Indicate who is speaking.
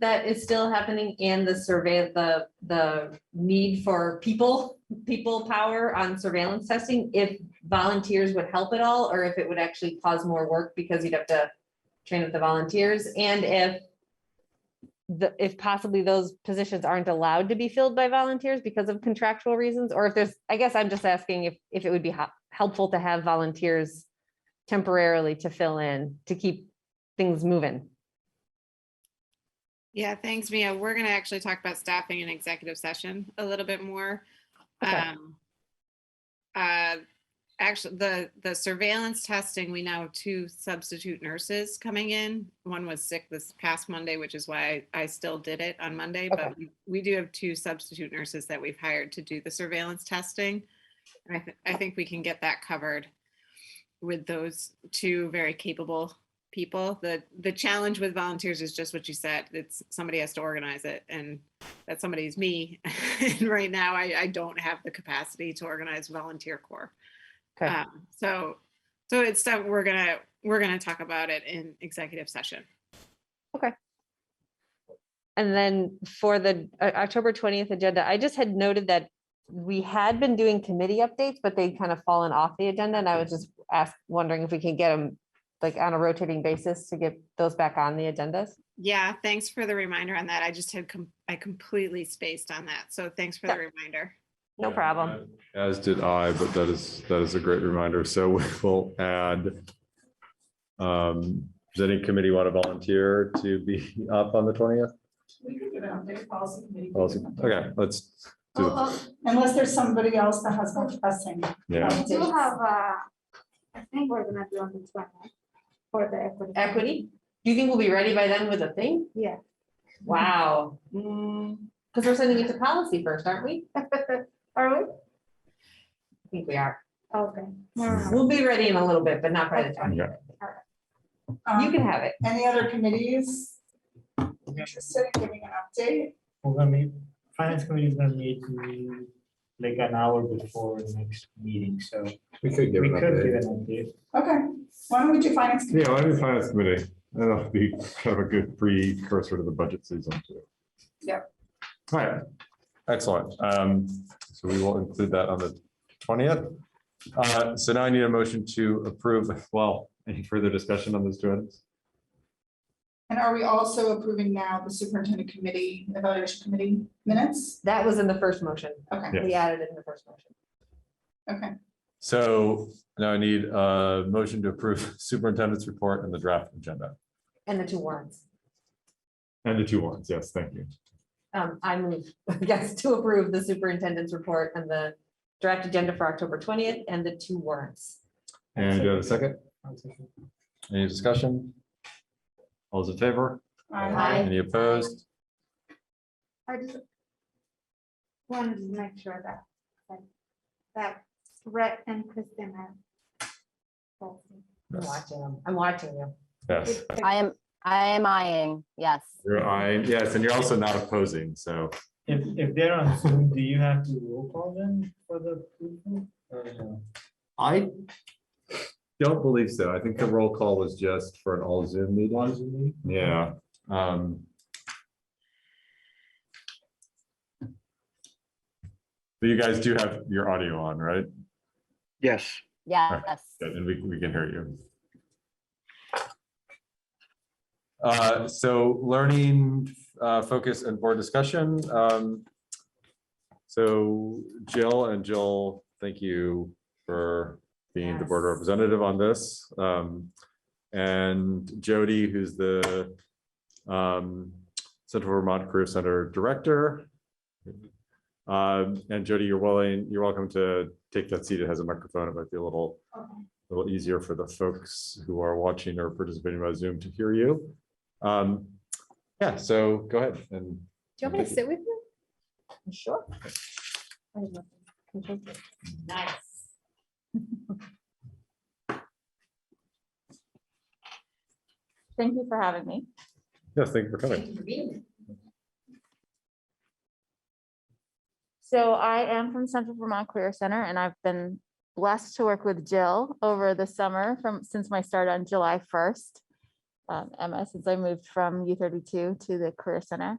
Speaker 1: that is still happening and the survey, the, the need for people, people power on surveillance testing, if volunteers would help at all, or if it would actually cause more work because you'd have to train up the volunteers, and if the, if possibly those positions aren't allowed to be filled by volunteers because of contractual reasons, or if there's, I guess I'm just asking if, if it would be hel- helpful to have volunteers temporarily to fill in, to keep things moving.
Speaker 2: Yeah, thanks, Mia. We're gonna actually talk about staffing in executive session a little bit more.
Speaker 1: Okay.
Speaker 2: Um, uh, Actually, the, the surveillance testing, we now have two substitute nurses coming in. One was sick this past Monday, which is why I I still did it on Monday, but we- we do have two substitute nurses that we've hired to do the surveillance testing. And I, thi- I think we can get that covered with those two very capable people. The the challenge with volunteers is just what you said. It's somebody has to organize it and that somebody is me. and right now I, I don't have the capacity to organize volunteer corps.
Speaker 1: Okay.
Speaker 2: Um, so so it's stuff we're gonna we're gonna talk about it in executive session.
Speaker 1: And then for the uh, October 20th agenda, I just had noted that we had been doing committee updates, but they'd kind of fallen off the agenda. And I was just asked, wondering if we could get them like on a rotating basis to get those back on the agendas.
Speaker 2: Yeah, thanks for the reminder on that. I just had com- I completely spaced on that. So thanks for the reminder.
Speaker 1: No
Speaker 3: Yeah,
Speaker 1: problem.
Speaker 3: I- As did I, but that is, that is a great reminder. So we will add. Um, does any committee want to volunteer to be up on the twentieth?
Speaker 4: We could get out there, policy committee.
Speaker 3: Okay, let's do,
Speaker 5: Uh,
Speaker 1: Oh,
Speaker 3: it.
Speaker 4: Unless there's somebody else that has more pressing.
Speaker 3: yeah,
Speaker 6: We do have, uh, I think we're gonna do on the twenty for the equity.
Speaker 1: Equity, do you think we'll be ready by then with a thing?
Speaker 6: Yeah.
Speaker 1: Wow. Because we're sending it to policy first, aren't we?
Speaker 6: Are we?
Speaker 1: I think we are.
Speaker 6: Okay.
Speaker 1: We'll be ready in a little bit, but not by the
Speaker 6: Okay.
Speaker 1: 20th. You
Speaker 4: Um,
Speaker 1: can have it.
Speaker 4: Any other committees? Interested in giving an update?
Speaker 5: We're gonna meet, finance committee is gonna meet mm, like an hour before the next meeting, so
Speaker 7: We could
Speaker 5: we
Speaker 7: give
Speaker 5: could
Speaker 7: an
Speaker 5: give
Speaker 7: update.
Speaker 5: an update.
Speaker 4: Okay, why don't we do finance? committee?
Speaker 3: yeah, why do finance committee? That'll be kind of a good precursor to the budget season too.
Speaker 4: Yep.
Speaker 3: All right, excellent. Um, so we will include that on the twentieth. Uh, so now I need a motion to approve. Well, any further discussion on those two items?
Speaker 4: And are we also approving now the superintendent committee, evaluation committee minutes?
Speaker 1: That was in the first motion.
Speaker 4: Okay,
Speaker 3: Yeah.
Speaker 1: We added it in the first motion.
Speaker 4: okay.
Speaker 3: So now I need a motion to approve superintendent's report and the draft agenda.
Speaker 1: And the two warrants.
Speaker 3: And the two warrants, yes, thank you.
Speaker 1: Um, I move, yes, to approve the superintendent's report and the draft agenda for October twentieth and the two warrants.
Speaker 3: And do you have a second? Any discussion? All those in favor?
Speaker 1: Aye.
Speaker 3: Any opposed?
Speaker 6: I just wanted to make sure that, that- that Brett and Kristen have.
Speaker 1: I'm watching them. I'm watching you.
Speaker 3: Yes,
Speaker 8: I am, I am eyeing, yes.
Speaker 3: you're eyeing, yes, and you're also not opposing, so
Speaker 5: If, if they're on Zoom, do you have to roll call them for the approval? or no?
Speaker 3: I don't believe so. I think the roll call was just for an all Zoom meeting. Yeah. um, But you guys do have your audio on, right?
Speaker 9: Yes,
Speaker 8: Yes.
Speaker 3: Good, And we, we can hear you. Uh, so learning, uh, focus and board discussion, um. So Jill and Jill, thank you for being the board
Speaker 1: Yes.
Speaker 3: representative on this. Um, and Jody, who's the, um, Central Vermont Career Center Director. Um, and Jody, you're willing, you're welcome to take that seat. It has a microphone. It might be a little a little easier for the folks who are watching or participating by Zoom to hear you. Um, Yeah, so go ahead and.
Speaker 1: Do you want me to sit with you? Sure. Nice.
Speaker 10: Thank you for having me.
Speaker 3: Yes, thank you for coming.
Speaker 1: Thank you for being here.
Speaker 10: So I am from Central Vermont Career Center and I've been blessed to work with Jill over the summer from, since my start on July 1st. um, Emma since I moved from U thirty-two to the Career Center.